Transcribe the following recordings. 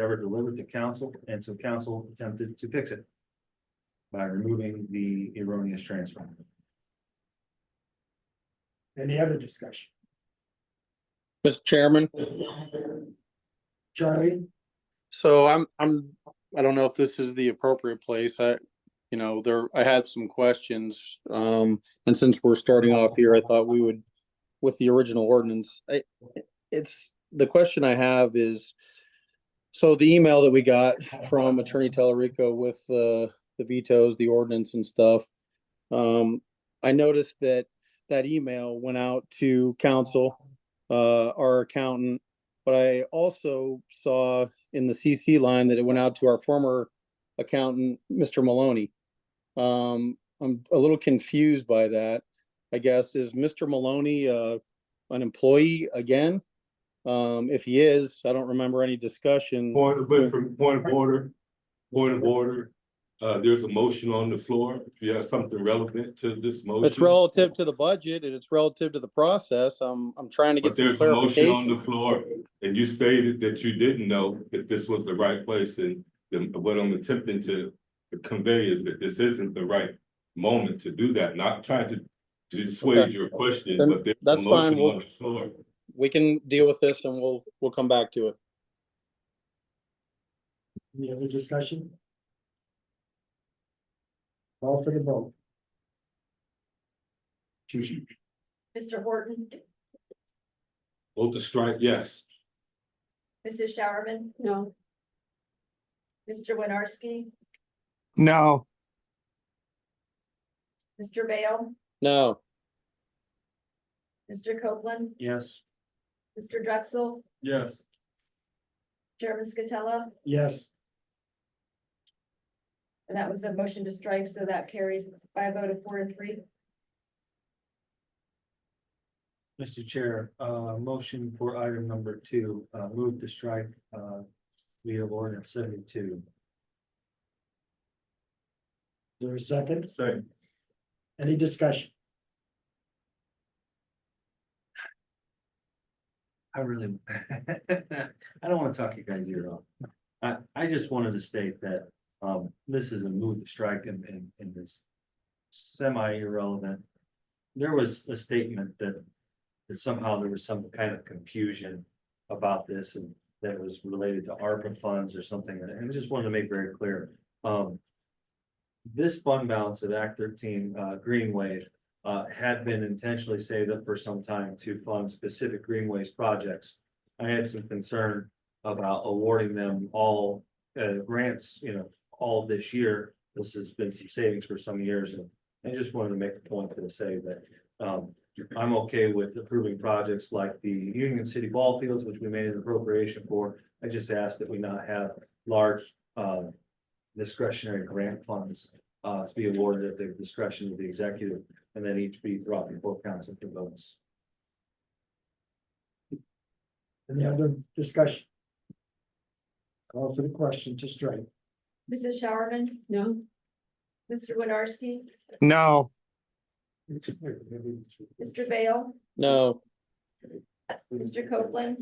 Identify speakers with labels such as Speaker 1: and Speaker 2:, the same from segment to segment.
Speaker 1: ever delivered to council, and so council attempted to fix it. By removing the erroneous transfer.
Speaker 2: Any other discussion?
Speaker 3: Mr. Chairman,
Speaker 2: Charlie,
Speaker 3: so I'm, I'm, I don't know if this is the appropriate place. I, you know, there, I had some questions. Um, and since we're starting off here, I thought we would, with the original ordinance, I, it's, the question I have is, so the email that we got from Attorney Telerico with the, the vetoes, the ordinance and stuff, um, I noticed that that email went out to council, uh, our accountant, but I also saw in the CC line that it went out to our former accountant, Mr. Maloney. Um, I'm a little confused by that. I guess, is Mr. Maloney, uh, an employee again? Um, if he is, I don't remember any discussion.
Speaker 4: Point, but from point of order, point of order, uh, there's a motion on the floor. If you have something relevant to this motion.
Speaker 3: It's relative to the budget and it's relative to the process. I'm, I'm trying to get
Speaker 4: But
Speaker 3: some
Speaker 4: there's a motion on
Speaker 3: clarification.
Speaker 4: the floor and you stated that you didn't know if this was the right place and then what I'm attempting to convey is that this isn't the right moment to do that. Not trying to to
Speaker 3: Okay.
Speaker 4: dissuade your question,
Speaker 3: Then
Speaker 4: but there's a
Speaker 3: that's fine.
Speaker 4: motion
Speaker 3: We'll-
Speaker 4: on the floor.
Speaker 3: We can deal with this and we'll, we'll come back to it.
Speaker 2: any other discussion? Call for the vote.
Speaker 5: Mr. Horton,
Speaker 4: Vote to strike, yes.
Speaker 5: Mrs. Showerman? No. Mr. Winarski,
Speaker 6: No,
Speaker 5: Mr. Bale,
Speaker 3: No.
Speaker 5: Mr. Copeland,
Speaker 1: Yes.
Speaker 5: Mr. Drexel,
Speaker 4: Yes.
Speaker 5: Chairman Scatella,
Speaker 2: Yes,
Speaker 5: and that was a motion to strike, so that carries by a vote of four to three.
Speaker 1: Mr. Chair, uh, motion for item number two, uh, move to strike, uh, via ordinance seventy-two.
Speaker 2: there's a second.
Speaker 4: Second.
Speaker 2: Any discussion?
Speaker 1: I really, I don't wanna talk you guys ear off. I, I just wanted to state that, um, this is a move to strike in, in, in this semi irrelevant. There was a statement that, that somehow there was some kind of confusion about this and that was related to ARPA funds or something, and I just wanted to make very clear, um. This fund balance at Act thirteen, uh, Greenway, uh, had been intentionally saved up for some time to fund specific greenways projects. I had some concern about awarding them all, uh, grants, you know, all this year. This has been some savings for some years and I just wanted to make the point to say that, um, I'm okay with approving projects like the Union City Ball Fields, which we made an appropriation for. I just ask that we not have large, uh, discretionary grant funds, uh, to be awarded at the discretion of the executive and then each be brought before council for votes.
Speaker 2: Any other discussion? Call for the question to strike.
Speaker 5: Mrs. Showerman? No. Mr. Winarski,
Speaker 6: no,
Speaker 5: Mr. Bale,
Speaker 3: No,
Speaker 5: Mr. Copeland,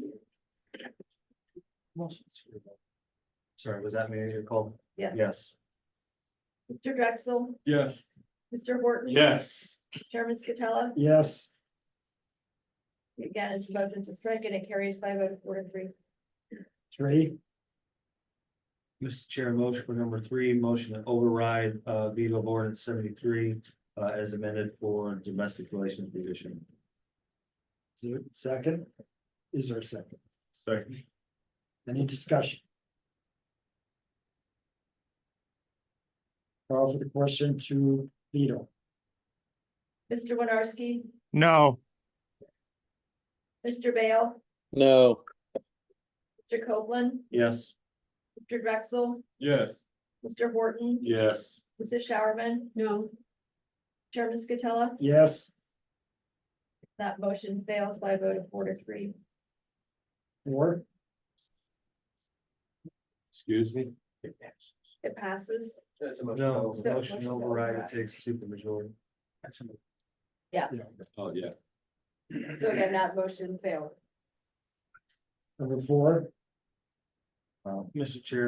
Speaker 1: Sorry, was that me you called?
Speaker 5: yes,
Speaker 1: Yes.
Speaker 5: Mr. Drexel,
Speaker 4: Yes.
Speaker 5: Mr. Horton.
Speaker 4: Yes.
Speaker 5: Chairman Scatella,
Speaker 2: Yes,
Speaker 5: again, it's a motion to strike and it carries by a vote of four to three.
Speaker 2: three,
Speaker 1: Mr. Chair, motion for number three, motion to override uh veto of ordinance seventy-three uh as amended for domestic relations division.
Speaker 2: is there a second? Is there a second?
Speaker 4: Second.
Speaker 2: Any discussion? Call for the question to veto.
Speaker 5: Mr. Winarski,
Speaker 6: no,
Speaker 5: Mr. Bale,
Speaker 3: no,
Speaker 5: Mr. Copeland,
Speaker 1: Yes.
Speaker 5: Mr. Drexel,
Speaker 4: Yes.
Speaker 5: Mr. Horton,
Speaker 4: Yes.
Speaker 5: Mrs. Showerman. No. Chairman Scatella,
Speaker 2: Yes,
Speaker 5: that motion fails by a vote of four to three.
Speaker 2: four,
Speaker 4: Excuse me?
Speaker 5: It passes.
Speaker 1: No,
Speaker 5: So,
Speaker 1: motion to override, it takes super majority.
Speaker 4: Oh, yeah.
Speaker 5: So again, that motion failed.
Speaker 2: number four.
Speaker 1: Uh, Mr. Chair,